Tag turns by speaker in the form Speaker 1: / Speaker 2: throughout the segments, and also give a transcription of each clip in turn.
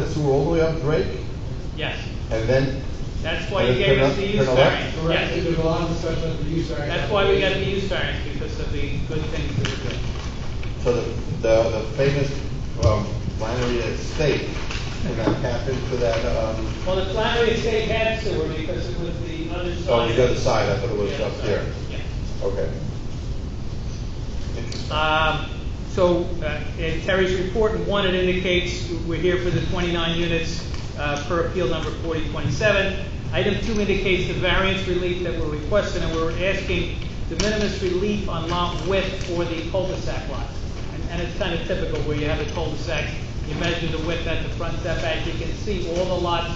Speaker 1: the sewer all the way up Drake
Speaker 2: Yes,
Speaker 1: and then,
Speaker 2: that's why
Speaker 1: But
Speaker 2: you
Speaker 1: it's
Speaker 2: gave
Speaker 1: been
Speaker 2: us
Speaker 1: up-
Speaker 2: the
Speaker 1: been
Speaker 2: use
Speaker 1: elect-
Speaker 2: variance,
Speaker 3: Correct,
Speaker 2: yes.
Speaker 3: there's a lot of discussion of the use variance.
Speaker 2: That's why we got the use variance, because of the good things that we're doing.
Speaker 1: so the, the, the famous, um, winery estate and that happened to that, um,
Speaker 2: Well, the Flattery Estate had sewer because it was the other side.
Speaker 1: oh, the other side, I thought it was
Speaker 2: Yeah,
Speaker 1: up
Speaker 2: sorry.
Speaker 1: there.
Speaker 2: Yeah.
Speaker 1: Okay. Interesting.
Speaker 2: Um, So uh, in Terry's report, in one, it indicates we're here for the 29 units uh, per appeal number 4027. Item two indicates the variance relief that we're requesting, and we're asking de minimis relief on lot width for the cul-de-sac lot. And- And it's kind of typical where you have a cul-de-sac, you measure the width at the front setback, you can see all the lots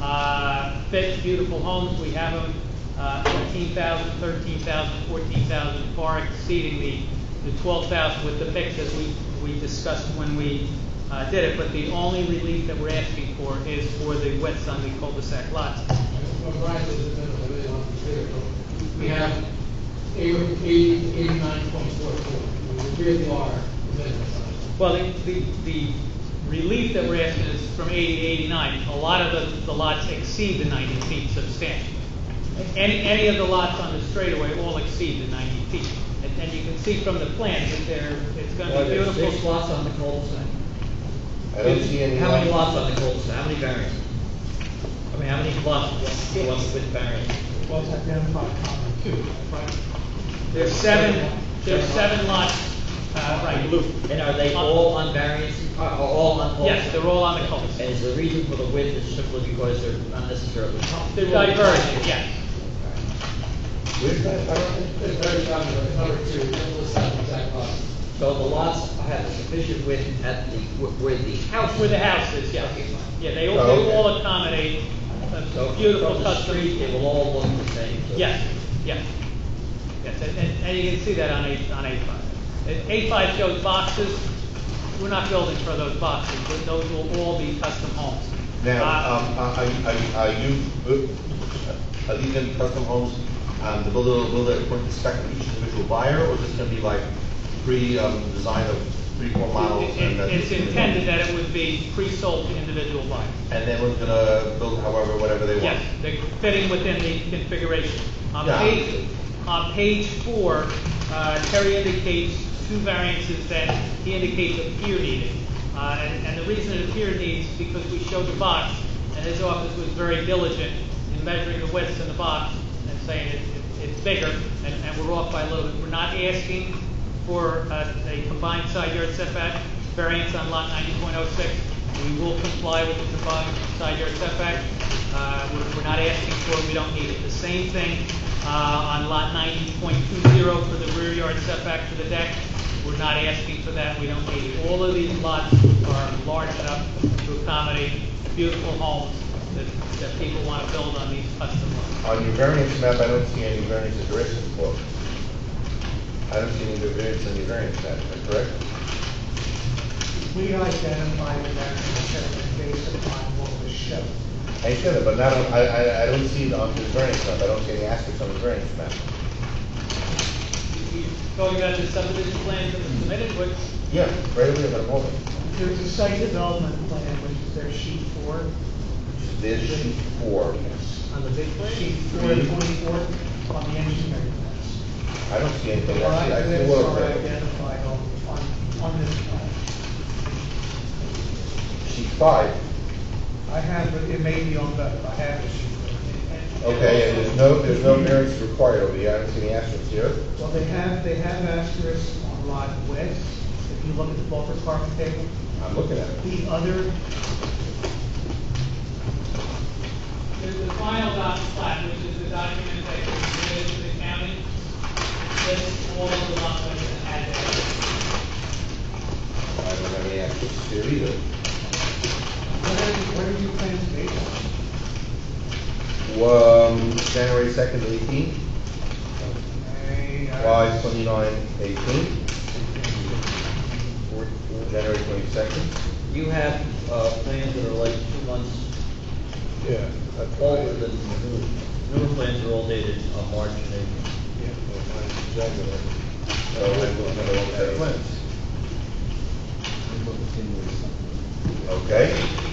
Speaker 2: uh, fit beautiful homes. We have them uh, 14,000, 13,000, 14,000, far exceeding the, the 12,000 with the mix as we, we discussed when we uh, did it. But the only relief that we're asking for is for the widths on the cul-de-sac lots.
Speaker 3: What Brian says is that I really want to clear, but we have eighty, eighty-nine point four four, the rear bar, the minimum size.
Speaker 2: Well, the, the, the relief that we're asking is from 80 to 89. A lot of the, the lots exceed the 90 feet substantially. Any, any of the lots on the straightaway all exceed the 90 feet. And, and you can see from the plans that they're, it's going to
Speaker 4: Well,
Speaker 2: be
Speaker 4: there's
Speaker 2: beautiful.
Speaker 4: Six lots on the cul-de-sac.
Speaker 1: I don't see any.
Speaker 4: How many
Speaker 1: lot-
Speaker 4: lots on the cul-de-sac, how many variants? I mean, how many lots, what's, what's with variance?
Speaker 3: Well, it's identified common two, right?
Speaker 2: There's seven, there's seven lots, uh, right, loop.
Speaker 4: And are they all on variance, are, are Uh, all on cul-de-sac?
Speaker 2: Yes, they're all on the cul-de-sac.
Speaker 4: And is the reason for the width is simply because they're not necessarily
Speaker 2: They're
Speaker 4: comparable?
Speaker 2: divergent, yes.
Speaker 1: Where's that, I don't,
Speaker 3: There's very common, but number two, double the size exact lot.
Speaker 4: So the lots have sufficient width at the, where the house.
Speaker 2: Where the house is, yes.
Speaker 4: Okay, fine.
Speaker 2: Yeah, they all,
Speaker 1: Oh,
Speaker 2: they
Speaker 1: okay.
Speaker 2: all accommodate
Speaker 4: So
Speaker 2: a
Speaker 4: from
Speaker 2: beautiful
Speaker 4: the
Speaker 2: custom.
Speaker 4: street, they will all look the same. so-
Speaker 2: Yes, yes. Yes, and, and- and you can see that on A, on A five. A five shows boxes. We're not building for those boxes, but those will all be custom homes.
Speaker 1: now,
Speaker 2: Uh,
Speaker 1: um, are, are, are you, uh, are these in custom homes, um, the builder, will build it according to spec of each individual buyer, or is this gonna be like pre, um, design of three, four um, models?
Speaker 2: it-
Speaker 1: and uh,
Speaker 2: it-
Speaker 1: that's-
Speaker 2: It's intended that it would be pre-sold to individual buyers.
Speaker 1: And then we're gonna build however, whatever they want?
Speaker 2: Yes, they're fitting within the configuration. On
Speaker 1: Yeah.
Speaker 2: page, on page four, uh, Terry indicates two variances that he indicates appear needed. Uh, And and the reason it appear needs, is because we showed the box, and his office was very diligent in measuring the widths in the box and saying it- it- it's bigger, and and we're off by a little bit. We're not asking for uh, a combined side yard setback variance on lot ninety point oh six. We will comply with the combined side yard setback. Uh, we're, we're not asking for it, we don't need it. The same thing, uh, on lot ninety point two zero for the rear yard setback for the deck. We're not asking for that, we don't need it. All of these lots are large enough to accommodate beautiful homes that, that people want to build on these custom lots.
Speaker 1: On your variance map, I don't see any variance addresses for. I don't see any variance on your variance map, am I correct?
Speaker 5: We identified the maximum setback based upon what was shown.
Speaker 1: I should have, but not, on- I, I, I don't see it on the variance map, I don't see any asterisks on the variance map.
Speaker 2: You- you- Going back to subdivision plans that were submitted, which,
Speaker 1: Yeah, right over there, but hold
Speaker 5: There's a site development plan, which is their sheet four.
Speaker 1: There's sheet four.
Speaker 5: On the big plan? Sheet four, twenty-four, on the engineering plans.
Speaker 1: I don't see anything, I see, I see
Speaker 5: That's
Speaker 1: one
Speaker 5: are
Speaker 1: over
Speaker 5: identified on, on, on this plan.
Speaker 1: Sheet five,
Speaker 5: I have, it- it may be on both, I have the sheet. four.
Speaker 1: okay, and there's no, there's no variance required over here, I don't see any asterisks here.
Speaker 5: Well, they have, they have asterisks on lot west, if you look at the buffer parking table.
Speaker 1: I'm looking at it.
Speaker 5: The other
Speaker 2: There's the final dot plat, which is the document that was submitted to the county, lists all of the lot widths and addresses.
Speaker 1: I don't have any asterisks here either.
Speaker 5: What are, what are your plans based on?
Speaker 1: Um, January second, eighteen,
Speaker 5: Hey, uh,
Speaker 1: five twenty-nine, eighteen. January twenty-second.
Speaker 4: You have, uh, plans that are like two months
Speaker 1: Yeah.
Speaker 4: older than the new, newer plans are all dated on March and April.
Speaker 1: So I will have a look at it. Okay,